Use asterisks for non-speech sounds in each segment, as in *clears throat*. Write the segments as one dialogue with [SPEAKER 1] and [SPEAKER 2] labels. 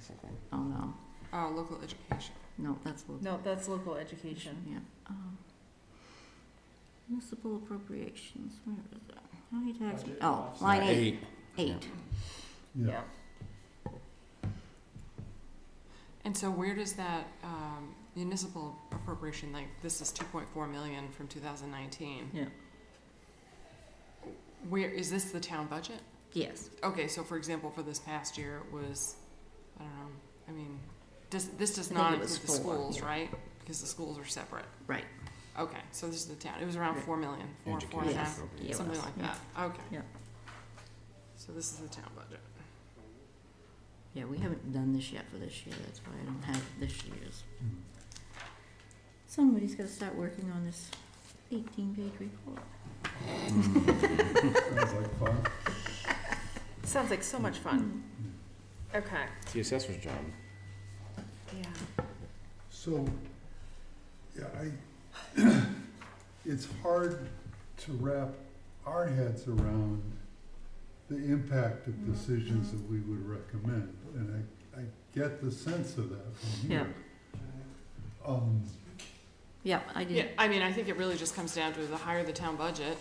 [SPEAKER 1] something.
[SPEAKER 2] Oh, no,
[SPEAKER 1] Oh, local education.
[SPEAKER 2] no, that's local.
[SPEAKER 3] No, that's local education.
[SPEAKER 2] Yeah. um, Municipal appropriations, where is that? County tax, oh, line eight, eight.
[SPEAKER 4] Yeah.
[SPEAKER 3] Yeah.
[SPEAKER 1] And so where does that um, municipal appropriation, like this is two point four million from two thousand nineteen?
[SPEAKER 2] Yeah.
[SPEAKER 1] Where, is this the town budget?
[SPEAKER 2] Yes,
[SPEAKER 1] Okay, so for example, for this past year, it was, I don't know, I mean, does, this does
[SPEAKER 2] I think
[SPEAKER 1] not
[SPEAKER 2] it was
[SPEAKER 1] include the
[SPEAKER 2] four,
[SPEAKER 1] schools,
[SPEAKER 2] yeah.
[SPEAKER 1] right? Because the schools are separate.
[SPEAKER 2] right,
[SPEAKER 1] Okay, so this is the town, it was around
[SPEAKER 2] Right.
[SPEAKER 1] four million, four, four and a
[SPEAKER 2] Education
[SPEAKER 1] half,
[SPEAKER 2] yeah, it
[SPEAKER 1] something
[SPEAKER 2] was,
[SPEAKER 1] like
[SPEAKER 2] yeah.
[SPEAKER 1] that, okay.
[SPEAKER 2] Yeah.
[SPEAKER 1] So this is the town budget.
[SPEAKER 2] Yeah, we haven't done this yet for this year, that's why I don't have this year's.
[SPEAKER 4] Mm.
[SPEAKER 2] Somebody's gotta start working on this eighteen-page report.
[SPEAKER 4] Sounds like fun.
[SPEAKER 3] Sounds like so much fun.
[SPEAKER 2] Mm-hmm.
[SPEAKER 3] Okay.
[SPEAKER 5] The assessor's job.
[SPEAKER 3] Yeah.
[SPEAKER 4] So, yeah, I, *clears throat* it's hard to wrap our heads around the impact
[SPEAKER 3] Mm-hmm.
[SPEAKER 4] of decisions that we would recommend, and I, I get the sense of that from you. Um,
[SPEAKER 2] Yeah, I
[SPEAKER 1] Yeah,
[SPEAKER 2] did,
[SPEAKER 1] I mean, I think it really just comes down to the higher the town budget,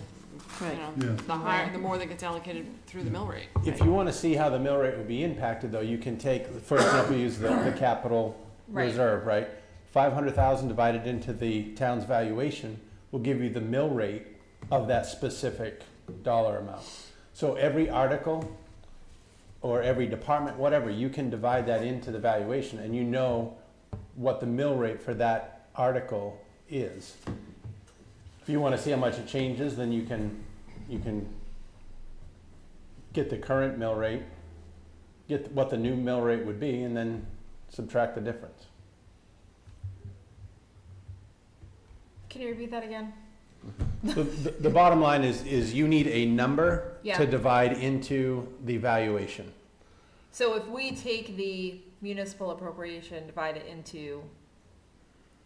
[SPEAKER 1] you
[SPEAKER 2] right,
[SPEAKER 1] know,
[SPEAKER 4] yeah,
[SPEAKER 1] the higher, the more that gets allocated through the mill rate.
[SPEAKER 5] If you want to see how the mill rate would be impacted, though, you can take, for example, use the, the capital
[SPEAKER 3] Right.
[SPEAKER 5] reserve, right? Five hundred thousand divided into the town's valuation will give you the mill rate of that specific dollar amount. So every article or every department, whatever, you can divide that into the valuation and you know what the mill rate for that article is. If you want to see how much it changes, then you can, you can get the current mill rate, get what the new mill rate would be, and then subtract the difference.
[SPEAKER 3] Can you repeat that again?
[SPEAKER 5] The, the, the bottom line is, is you need a number
[SPEAKER 3] Yeah.
[SPEAKER 5] to divide into the valuation.
[SPEAKER 3] So if we take the municipal appropriation, divide it into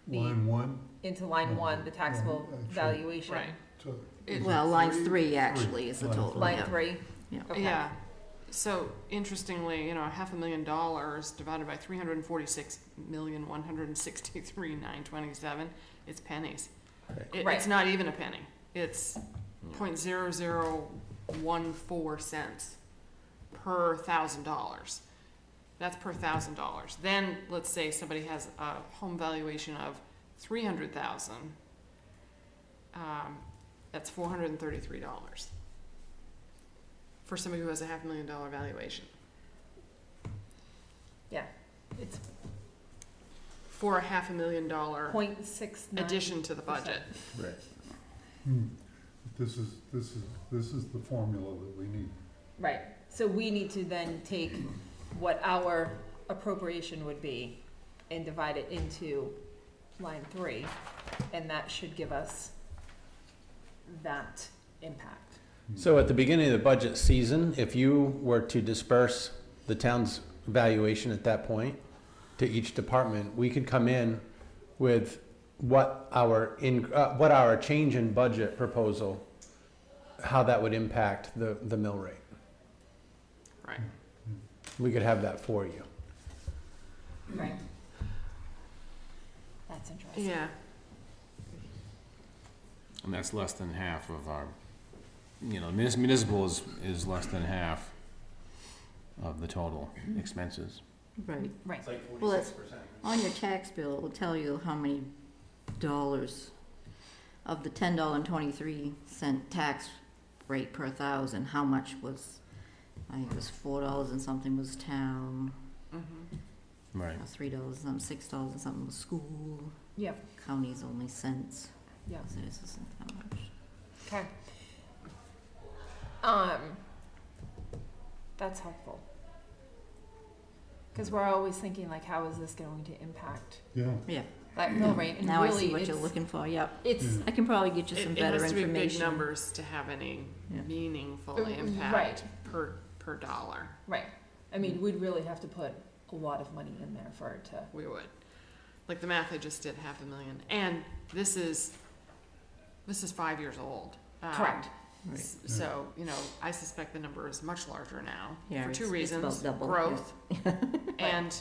[SPEAKER 3] the
[SPEAKER 4] line one Uh,
[SPEAKER 3] into line
[SPEAKER 5] Mm-hmm.
[SPEAKER 3] one, the taxable
[SPEAKER 4] Line- actually-
[SPEAKER 3] valuation.
[SPEAKER 1] Right.
[SPEAKER 4] to.
[SPEAKER 1] It-
[SPEAKER 4] is it
[SPEAKER 2] well, line three actually is the
[SPEAKER 4] Line
[SPEAKER 2] total,
[SPEAKER 3] Line
[SPEAKER 2] yeah.
[SPEAKER 3] three.
[SPEAKER 2] Yeah.
[SPEAKER 3] Okay.
[SPEAKER 1] Yeah, so interestingly, you know, half a million dollars divided by three hundred and forty-six million, one hundred and sixty-three, nine twenty-seven, it's pennies.
[SPEAKER 5] Right.
[SPEAKER 1] It, it's
[SPEAKER 3] Right.
[SPEAKER 1] not even a penny, it's point zero zero one four cents per thousand dollars. That's per thousand dollars. Then, let's say somebody has a home valuation of three hundred thousand. Um, that's four hundred and thirty-three dollars for somebody who has a half million dollar valuation.
[SPEAKER 3] It's
[SPEAKER 1] For a half a million
[SPEAKER 5] Mm-hmm.
[SPEAKER 1] dollar
[SPEAKER 3] point six nine.
[SPEAKER 1] addition to the budget.
[SPEAKER 5] Right.
[SPEAKER 4] Hmm. This is, this is, this is the formula that we need.
[SPEAKER 3] Right, so we need to then take what our appropriation would be and divide it into line three, and that should give us that impact.
[SPEAKER 5] So at the beginning of the budget season, if you were to disperse the town's valuation at that point to each department, we could come in with what our in, uh, what our change in budget proposal, how that would impact the, the mill rate.
[SPEAKER 1] Right.
[SPEAKER 5] We could have that for you.
[SPEAKER 3] Right.
[SPEAKER 5] Mm-hmm.
[SPEAKER 3] That's interesting.
[SPEAKER 1] Yeah.
[SPEAKER 6] And that's less than half of our, you know, munis- municipal is, is less than half of the total expenses.
[SPEAKER 2] Right.
[SPEAKER 3] Right,
[SPEAKER 2] Well, it's, on your tax bill, it will tell you how many dollars of the ten dollar and twenty-three cent tax rate per thousand, how much was, I think it was four dollars and something was town,
[SPEAKER 1] Mm-hmm.
[SPEAKER 6] Right.
[SPEAKER 2] or three dollars and something, six dollars and something was school,
[SPEAKER 3] yep,
[SPEAKER 2] county's only cents.
[SPEAKER 3] Yeah.
[SPEAKER 2] So this isn't that much.
[SPEAKER 3] okay. Um, that's helpful. Cause we're always thinking like, how is this going to impact
[SPEAKER 4] Yeah.
[SPEAKER 3] that mill rate? And
[SPEAKER 2] Now I
[SPEAKER 3] really
[SPEAKER 2] see what you're
[SPEAKER 3] it's-
[SPEAKER 2] looking for, yep.
[SPEAKER 3] It's,
[SPEAKER 2] I can probably get you
[SPEAKER 1] It,
[SPEAKER 2] some
[SPEAKER 1] it
[SPEAKER 2] better
[SPEAKER 1] has to be big
[SPEAKER 2] information.
[SPEAKER 1] numbers to have any
[SPEAKER 2] Yeah.
[SPEAKER 1] meaningful
[SPEAKER 3] Uh,
[SPEAKER 1] impact
[SPEAKER 3] right.
[SPEAKER 1] per per dollar.
[SPEAKER 3] Right. I mean, we'd really have to put a lot of money in there for it to.
[SPEAKER 1] We would, like the math I just did, half a million, and this is this is five years old. Um,
[SPEAKER 3] Correct.
[SPEAKER 2] Right. Mm.
[SPEAKER 1] s- So you know, I suspect the number is much larger now
[SPEAKER 2] Yeah,
[SPEAKER 1] for two
[SPEAKER 2] it's- it's about
[SPEAKER 1] reasons:
[SPEAKER 2] *laughs* double, yeah.
[SPEAKER 1] growth and